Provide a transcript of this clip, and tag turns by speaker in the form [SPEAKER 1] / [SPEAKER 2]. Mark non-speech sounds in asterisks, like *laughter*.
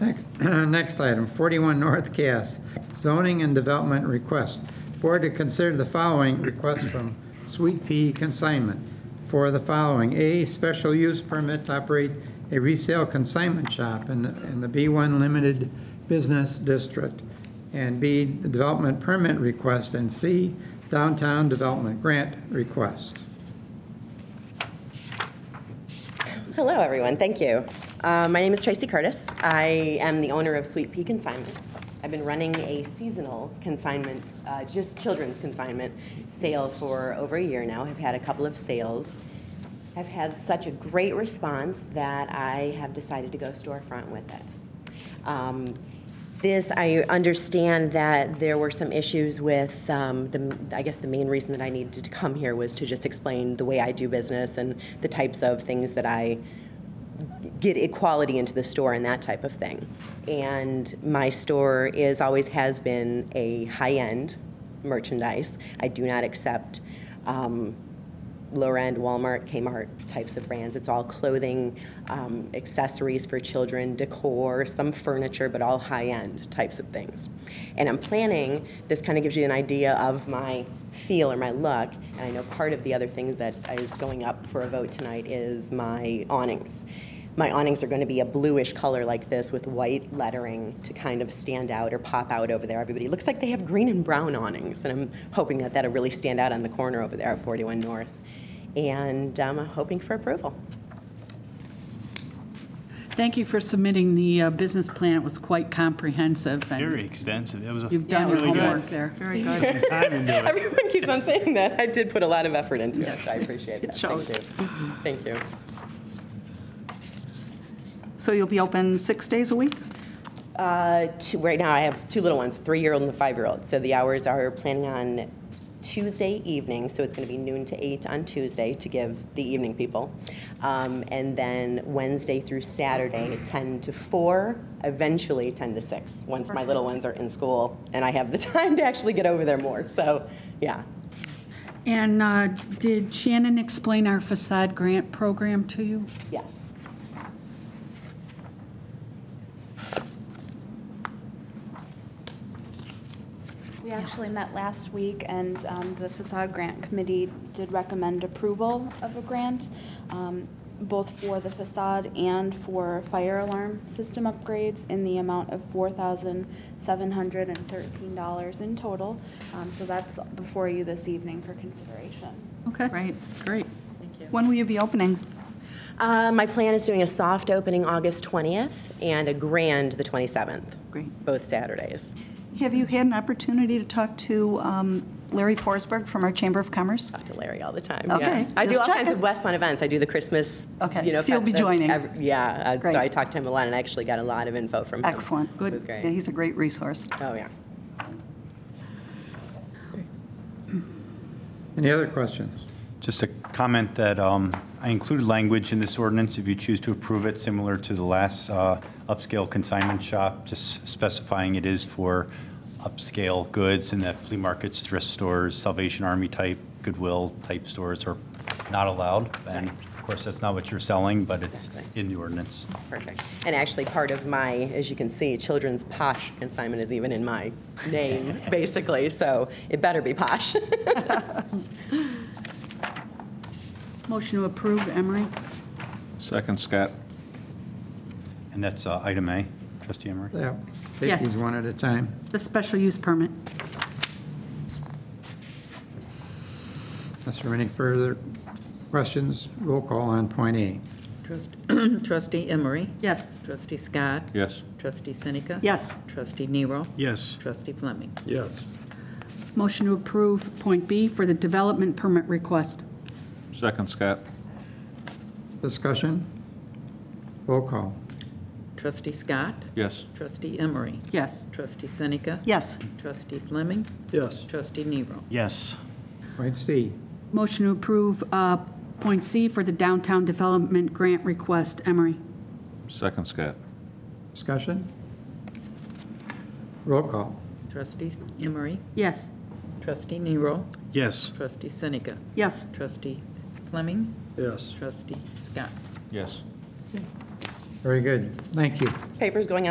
[SPEAKER 1] Next- *clears throat* Next item, 41 North Cass, zoning and development request. Board to consider the following request from Sweet Pea Consignment for the following. A, special use permit to operate a resale consignment shop in the in the B1 Limited Business District. And B, development permit request. And C, downtown development grant request.
[SPEAKER 2] Hello, everyone. Thank you. Uh, my name is Tracy Curtis. I am the owner of Sweet Pea Consignment. I've been running a seasonal consignment, uh, just children's consignment sale for over a year now. I've had a couple of sales. I've had such a great response that I have decided to go storefront with it. Um, This, I understand that there were some issues with, um, the I guess the main reason that I needed to come here was to just explain the way I do business and the types of things that I get equality into the store and that type of thing. And my store is, always has been a high-end merchandise. I do not accept um, lower-end Walmart, Kmart types of brands. It's all clothing, um, accessories for children, decor, some furniture, but all high-end types of things. And I'm planning, this kind of gives you an idea of my feel or my look. And I know part of the other thing that is going up for a vote tonight is my awnings. My awnings are going to be a bluish color like this with white lettering to kind of stand out or pop out over there. Everybody looks like they have green and brown awnings, and I'm hoping that that'll really stand out on the corner over there at 41 North. And um, I'm hoping for approval. *laughs*
[SPEAKER 3] Thank you for submitting the uh, business plan. It was quite comprehensive. and
[SPEAKER 4] Very extensive. That was a-
[SPEAKER 3] You've done your
[SPEAKER 4] really good.
[SPEAKER 3] homework there. Very
[SPEAKER 4] Put some time into it.
[SPEAKER 2] Everyone keeps on saying that. I did put a lot of effort into it, so I appreciate that.
[SPEAKER 5] shows.
[SPEAKER 2] Thank you. Thank you.
[SPEAKER 5] So you'll be open six days a week?
[SPEAKER 2] Uh, two, right now, I have two little ones, a three-year-old and a five-year-old. So the hours are planning on Tuesday evening, so it's going to be noon to eight on Tuesday to give the evening people. Um, and then Wednesday through Saturday, ten to four, eventually ten to six, once my little ones are in school and I have the *laughs* time to actually get over there more. So, yeah.
[SPEAKER 3] And uh, did Shannon explain our facade grant program to you?
[SPEAKER 2] Yes.
[SPEAKER 6] We actually met last week, and um, the facade grant committee did recommend approval of a grant, um, both for the facade and for fire alarm system upgrades in the amount of $4,713 in total. Um, So that's before you this evening for consideration.
[SPEAKER 3] Okay.
[SPEAKER 5] Right, great. When will you be opening?
[SPEAKER 2] Uh, my plan is doing a soft opening August 20th and a grand the 27th.
[SPEAKER 5] Great.
[SPEAKER 2] Both Saturdays.
[SPEAKER 5] Have you had an opportunity to talk to um, Larry Forsberg from our Chamber of Commerce?
[SPEAKER 2] talk to Larry all the time. yeah.
[SPEAKER 5] Okay,
[SPEAKER 2] I do all
[SPEAKER 5] just
[SPEAKER 2] kinds of
[SPEAKER 5] checking.
[SPEAKER 2] Westmont events. I do the Christmas.
[SPEAKER 5] Okay,
[SPEAKER 2] You know,
[SPEAKER 5] so you'll be
[SPEAKER 2] fest-
[SPEAKER 5] joining.
[SPEAKER 2] every- yeah. Uh,
[SPEAKER 5] Great.
[SPEAKER 2] so I talked to him a lot, and I actually got a lot of info from him.
[SPEAKER 5] Excellent.
[SPEAKER 2] It was
[SPEAKER 5] Yeah,
[SPEAKER 2] great.
[SPEAKER 5] he's a great resource.
[SPEAKER 2] Oh yeah.
[SPEAKER 1] Any other questions?
[SPEAKER 4] Just a comment that um, I included language in this ordinance, if you choose to approve it, similar to the last uh, upscale consignment shop, just specifying it is for upscale goods and that flea markets, thrift stores, Salvation Army type, Goodwill type stores are not allowed. And of course, that's not what you're selling, but it's in the ordinance.
[SPEAKER 2] Perfect. And actually, part of my, as you can see, children's posh consignment is even in my name, *laughs* basically. So it better be posh. *laughs*
[SPEAKER 3] Motion to approve, Emery.
[SPEAKER 7] Second, Scott.
[SPEAKER 4] And that's uh, item A, trustee Emery.
[SPEAKER 1] Yeah, take
[SPEAKER 3] Yes.
[SPEAKER 1] these one at a time.
[SPEAKER 3] The special use permit.
[SPEAKER 1] Unless there are any further questions, roll call on point A.
[SPEAKER 8] Trust- *clears throat* Trustee Emery?
[SPEAKER 3] Yes.
[SPEAKER 8] Trustee Scott?
[SPEAKER 7] Yes.
[SPEAKER 8] Trustee Seneca?
[SPEAKER 5] Yes.
[SPEAKER 8] Trustee Nero?
[SPEAKER 4] Yes.
[SPEAKER 8] Trustee Fleming?
[SPEAKER 7] Yes.
[SPEAKER 3] Motion to approve point B for the development permit request.
[SPEAKER 7] Second, Scott.
[SPEAKER 1] Discussion? Roll call.
[SPEAKER 8] Trustee Scott?
[SPEAKER 7] Yes.
[SPEAKER 8] Trustee Emery?
[SPEAKER 3] Yes.
[SPEAKER 8] Trustee Seneca?
[SPEAKER 5] Yes,
[SPEAKER 8] Trustee Fleming?
[SPEAKER 7] Yes.
[SPEAKER 8] Trustee Nero?
[SPEAKER 4] Yes.
[SPEAKER 1] Point C,
[SPEAKER 3] Motion to approve uh, point C for the downtown development grant request, Emery.
[SPEAKER 7] Second, Scott.
[SPEAKER 1] discussion? Roll call.
[SPEAKER 8] Trustee Emery?
[SPEAKER 3] Yes.
[SPEAKER 8] Trustee Nero?
[SPEAKER 4] Yes.
[SPEAKER 8] Trustee Seneca?
[SPEAKER 5] yes.
[SPEAKER 8] Trustee Fleming?
[SPEAKER 7] Yes.
[SPEAKER 8] Trustee Scott?
[SPEAKER 7] Yes.
[SPEAKER 1] Very good. Thank you.
[SPEAKER 2] Papers going